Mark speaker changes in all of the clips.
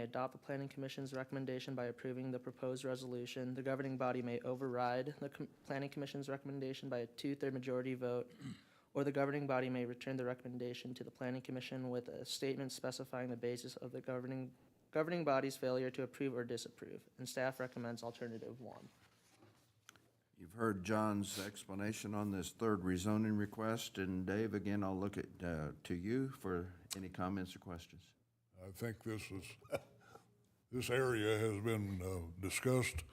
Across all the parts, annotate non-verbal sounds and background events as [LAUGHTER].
Speaker 1: adopt the planning commission's recommendation by approving the proposed resolution. The governing body may override the com- planning commission's recommendation by a two-third majority vote, or the governing body may return the recommendation to the planning commission with a statement specifying the basis of the governing, governing body's failure to approve or disapprove. And staff recommends alternative one.
Speaker 2: You've heard John's explanation on this third rezoning request, and Dave, again, I'll look at, uh, to you for any comments or questions.
Speaker 3: I think this is, [LAUGHS] this area has been uh, discussed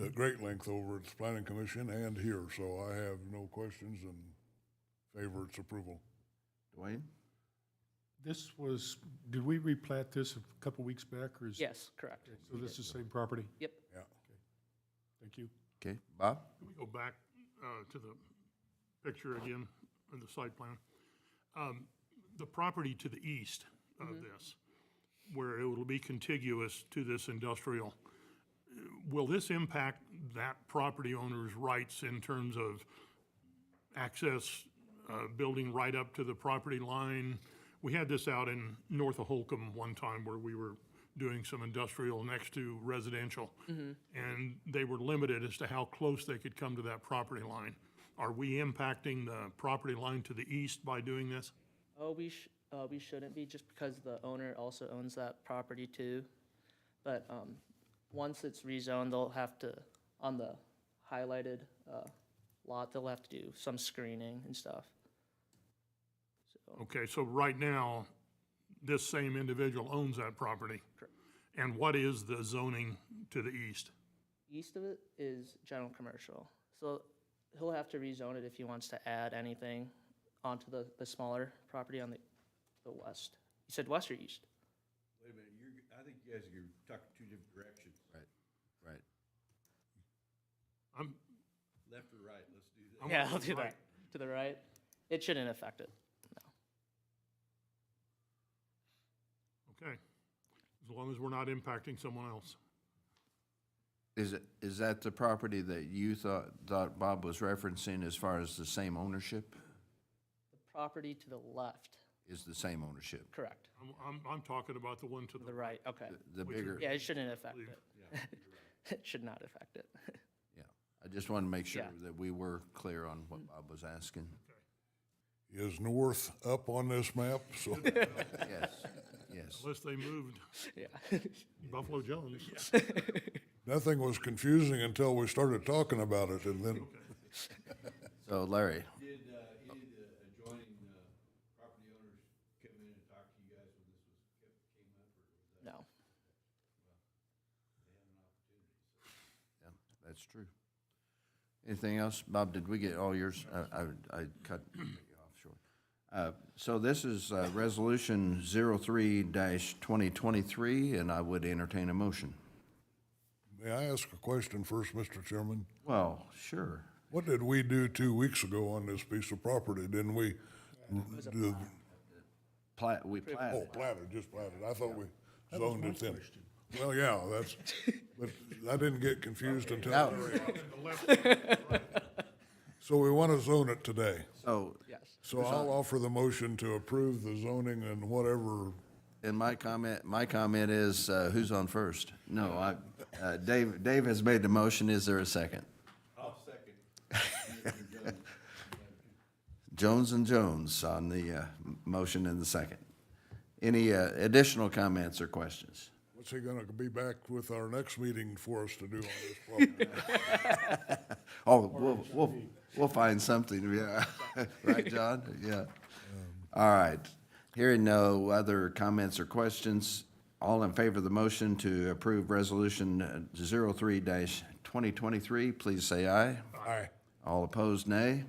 Speaker 3: at great length over at the planning commission and here, so I have no questions and favor its approval.
Speaker 2: Dwayne?
Speaker 4: This was, did we replat this a couple weeks back, or is?
Speaker 1: Yes, correct.
Speaker 4: So this is the same property?
Speaker 1: Yep.
Speaker 3: Yeah.
Speaker 4: Thank you.
Speaker 2: Okay, Bob?
Speaker 5: Can we go back uh, to the picture again, of the site plan? Um, The property to the east of this, where it will be contiguous to this industrial, uh, will this impact that property owner's rights in terms of access, uh, building right up to the property line? We had this out in north of Holcomb one time where we were doing some industrial next to residential.
Speaker 1: Mm-hmm.
Speaker 5: And they were limited as to how close they could come to that property line. Are we impacting the property line to the east by doing this?
Speaker 1: Oh, we sh- uh, we shouldn't be, just because the owner also owns that property too. But, um, once it's rezoned, they'll have to, on the highlighted, uh, lot, they'll have to do some screening and stuff.
Speaker 5: Okay, so right now, this same individual owns that property. And what is the zoning to the east?
Speaker 1: East of it is general commercial, so he'll have to rezone it if he wants to add anything onto the, the smaller property on the, the west. You said west or east?
Speaker 6: Wait a minute, you're, I think you guys are talking two different directions,
Speaker 2: Right, right.
Speaker 5: I'm,
Speaker 6: left or right, let's do that.
Speaker 5: I'm
Speaker 1: Yeah,
Speaker 5: on
Speaker 1: I'll
Speaker 5: the
Speaker 1: do that.
Speaker 5: right.
Speaker 1: To the right? It shouldn't affect it.
Speaker 5: okay, as long as we're not impacting someone else.
Speaker 2: Is it, is that the property that you thought, thought Bob was referencing as far as the same ownership?
Speaker 1: The property to the left,
Speaker 2: Is the same ownership?
Speaker 1: correct,
Speaker 5: I'm, I'm, I'm talking about the one to
Speaker 1: the
Speaker 5: the,
Speaker 1: right, okay.
Speaker 2: The- The bigger,
Speaker 1: Yeah, it shouldn't affect it. [LAUGHS] It should not affect it. [LAUGHS]
Speaker 2: yeah. I just wanted to make sure
Speaker 1: Yeah. Mm-hmm.
Speaker 2: that we were clear on what Bob was asking.
Speaker 3: Is north up on this map? So
Speaker 2: Yes, yes.
Speaker 5: unless they moved
Speaker 1: Yeah.
Speaker 5: Buffalo Jones.
Speaker 3: nothing was confusing until we started talking about it and then,
Speaker 2: So Larry,
Speaker 6: Did, uh, any of the adjoining, uh, property owners come in and talk to you guys when this was, kept, came up, or was that?
Speaker 1: No.
Speaker 2: Yeah, that's true. Anything else? Bob, did we get all yours? I, I, I cut you off short. Uh, So this is uh, Resolution 03-2023, and I would entertain a motion.
Speaker 3: may I ask a question first, Mr. Chairman?
Speaker 2: Well, sure.
Speaker 3: What did we do two weeks ago on this piece of property? Didn't we? do-
Speaker 2: Plat, we
Speaker 3: Oh,
Speaker 2: platted.
Speaker 3: platted, just platted. I thought we zoned it then. Well, yeah, that's, but I didn't get confused until, so we want to zone it today.
Speaker 2: So,
Speaker 3: So I'll offer the motion to approve the zoning and whatever,
Speaker 2: and my comment, my comment is, uh, who's on first? No, I, [LAUGHS] uh, Dave, Dave has made the motion. Is there a second?
Speaker 6: I'll second.
Speaker 2: [LAUGHS] Jones and Jones on the uh, m- motion and the second. Any uh, additional comments or questions?
Speaker 3: what's he going to be back with our next meeting for us to do on this property?
Speaker 2: Oh, we'll, we'll, we'll find something, yeah. [LAUGHS] Right, John? Yeah. All right. Hearing no other comments or questions, all in favor of the motion to approve Resolution uh, 03-2023, please say aye.
Speaker 3: Aye.
Speaker 2: All opposed, nay.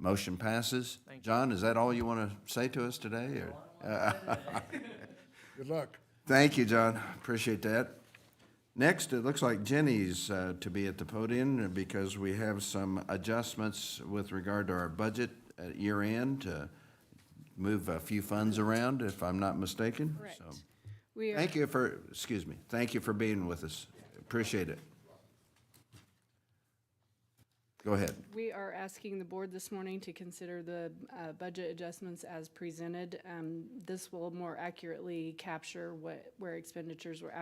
Speaker 2: Motion passes. John, is that all you want to say to us today? or-
Speaker 3: Good luck.
Speaker 2: Thank you, John. Appreciate that. Next, it looks like Jenny's uh, to be at the podium because we have some adjustments with regard to our budget at year end to move a few funds around, if I'm not mistaken.
Speaker 7: Correct.
Speaker 2: So,
Speaker 7: We are,
Speaker 2: Thank you for, excuse me, thank you for being with us. Appreciate it. Go ahead.
Speaker 7: We are asking the board this morning to consider the uh, budget adjustments as presented. Um, This will more accurately capture what, where expenditures were